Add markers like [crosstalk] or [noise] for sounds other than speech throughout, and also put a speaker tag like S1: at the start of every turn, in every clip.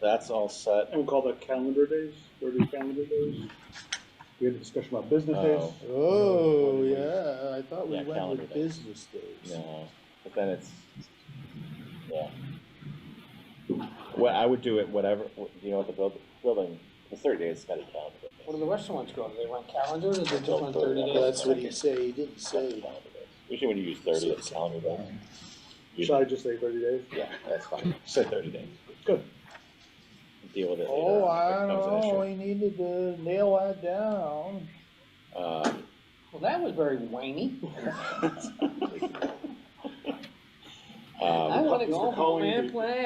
S1: That's all set.
S2: And we'll call that calendar days, thirty calendar days. We had a discussion about business days.
S1: Oh,
S3: Oh, yeah, I thought we
S1: Yeah,
S3: went
S1: calendar
S3: with
S1: day.
S3: business days.
S1: no, but then it's, yeah. Well, I would do it whatever, do you know what the build, building, the thirty days got a calendar.
S4: What do the Western ones go, do they want calendar or do they just want
S1: October,
S4: thirty
S1: yeah.
S4: days?
S3: That's what he said, he didn't
S1: Calendar
S3: say.
S1: days. Usually when you use thirty, it's calendar day. You-
S2: Should I just say thirty days?
S1: Yeah, that's fine, say thirty days.
S2: Good.
S1: Deal with it later.
S3: Oh,
S1: if it
S3: I
S1: becomes an
S3: don't know,
S1: issue.
S3: we needed to nail that down.
S1: Uh,
S4: Well, that was very whiny.
S1: [laughs]
S4: I
S1: um,
S4: wanna
S2: Mr.
S4: go home
S2: Cohen,
S4: and
S2: the-
S1: The
S4: play.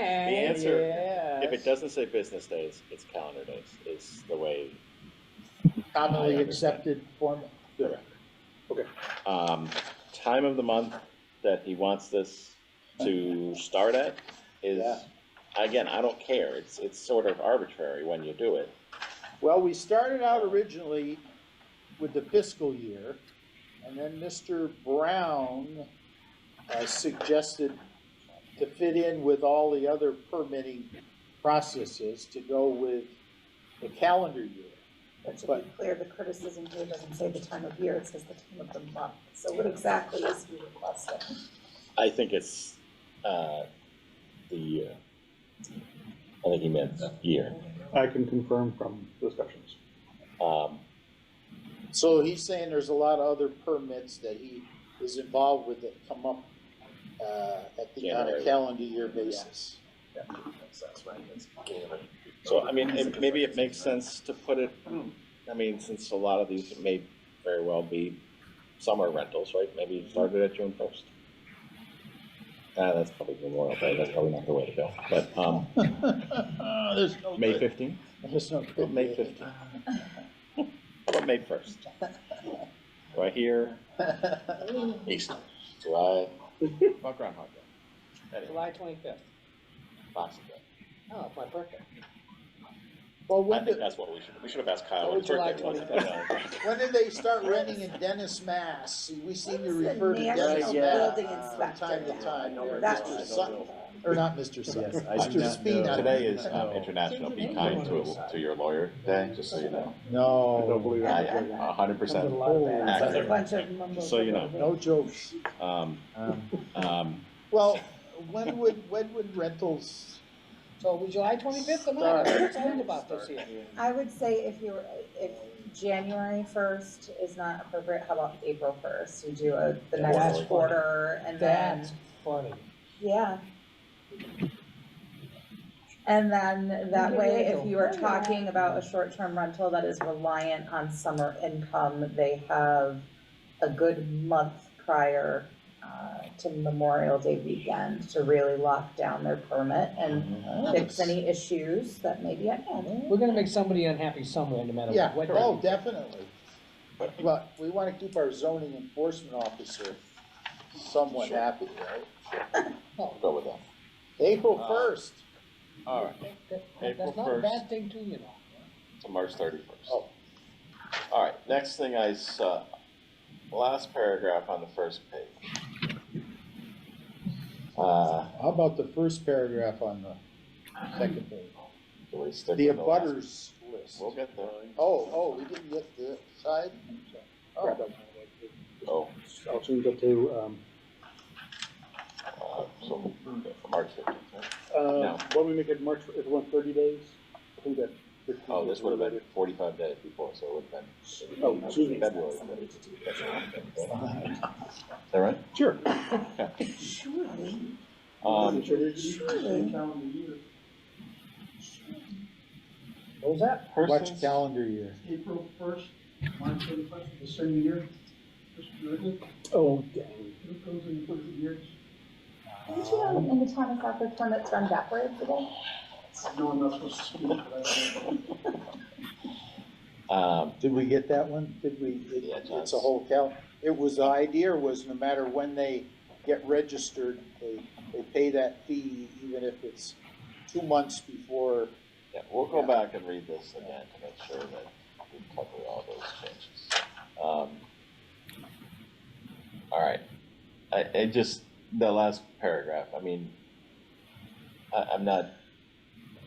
S1: answer, if it
S3: Yes,
S1: doesn't say business days, it's calendar days, is the way
S3: commonly
S1: I understand.
S3: accepted format.
S1: um, time of the month that he wants this to start at is,
S3: Yeah.
S1: again, I don't care, it's, it's sort of arbitrary when you do it.
S3: Well, we started out originally with the fiscal year, and then Mr. Brown uh, suggested to fit in with all the other permitting processes to go with the calendar year.
S5: But to be clear, the criticism here doesn't say the time of year, it says the time of the month. So what exactly is he requesting?
S1: I think it's, uh, the year. I think he meant year.
S2: I can confirm from discussions.
S1: Um,
S3: So he's saying there's a lot of other permits that he is involved with that come up uh, at the, on a
S1: January.
S3: calendar year basis.
S1: so, I mean, it- maybe it makes sense to put it, I mean, since a lot of these may very well be summer rentals, right? Maybe it started at June first. Ah, that's probably Memorial Day, that's probably not the way to go, but, um,
S3: [laughs] There's no
S1: May
S3: good-
S1: fifteenth?
S3: there's no good
S1: May
S3: way.
S1: fifteenth. About May first? Right here, Easter, July, fuck Groundhog Day. Anyway,
S4: July twenty-fifth.
S1: Boxing Day.
S4: Oh, it's my birthday.
S3: Well,
S1: I
S3: when
S1: think
S3: did,
S1: that's what we should, we should have asked Kyle
S4: Oh,
S1: what his
S4: July
S1: birthday was. I
S3: when did they start renting in Dennis, Mass? See, We seem to
S5: What is the
S3: refer to
S5: National
S3: Dennis, Mass
S5: Building
S3: from
S5: Inspector
S3: uh, time to
S5: now?
S3: time.
S5: Or
S3: Mr.
S5: That's
S3: Sutton, or not Mr. Sutton,
S6: Yes, I do
S3: Mr.
S6: not
S3: Spina.
S6: know.
S1: Today is um, International Be Kind to, to Your Lawyer Day, just so you know.
S2: I don't
S3: No,
S2: believe
S1: I,
S2: that.
S1: a hundred percent.
S5: Sounds like a
S1: Accurate.
S5: bunch of mumbo
S1: Just so you know.
S3: no jokes.
S1: Um,
S6: Um,
S1: um,
S3: Well, when would, when would rentals,
S4: So it was July twenty-fifth or not? I'm excited about this year.
S5: I would say if you, if January first is not appropriate, how about April first? You do a, the
S1: That's
S5: next
S1: fine.
S5: quarter and then,
S4: That's funny.
S5: yeah. And then that way, if you are talking about a short-term rental that is reliant on summer income, they have a good month prior uh, to Memorial Day weekend to really lock down their permit and
S3: Oh,
S5: fix any issues that may be at hand.
S4: We're gonna make somebody unhappy somewhere, no matter
S3: yeah,
S4: what.
S3: oh, definitely. But we wanna keep our zoning enforcement officer somewhat happy, right?
S1: we'll go with that.
S3: April
S1: Uh,
S3: first,
S1: All right,
S4: That- That's not a bad thing too, you know.
S1: to March thirty-first.
S3: Oh.
S1: All right, next thing I saw, last paragraph on the first page. Uh,
S3: how about the first paragraph on the second page?
S1: do we stick
S3: The
S1: with last-
S3: abutters list.
S1: We'll get there.
S3: Oh, oh, we didn't get the side? Oh,
S1: Oh,
S2: I'll change it to, um,
S1: uh, so, for March fifteenth, right?
S2: uh, what do we make it March, if it went thirty days? I think that. 15
S1: Oh, this
S2: is
S1: would have been
S2: related.
S1: forty-five days before, so it would have been.
S2: Oh, excuse me.
S1: February. but it's- that's all right. Is that right?
S2: Sure.
S5: Surely,
S1: Um,
S5: surely.
S4: What was that?
S3: Watch
S1: persons-
S3: calendar year.
S7: April first, March thirty-first, the same year. Just really,
S2: Oh, dang.
S7: it goes in for the years.
S5: Did you know in the town of Southwick permits run backwards today?
S7: No, I'm not supposed to speak, but I don't know.
S1: Um,
S3: Did we get that one? Did we, it-
S1: Yeah,
S3: it's a whole cal, it was, the idea was no matter when they get registered, they, they pay that fee even if it's two months before.
S1: Yeah, we'll go back and read this again to make sure that we cover all those changes. Um, All right, I, I just, the last paragraph, I mean, I, I'm not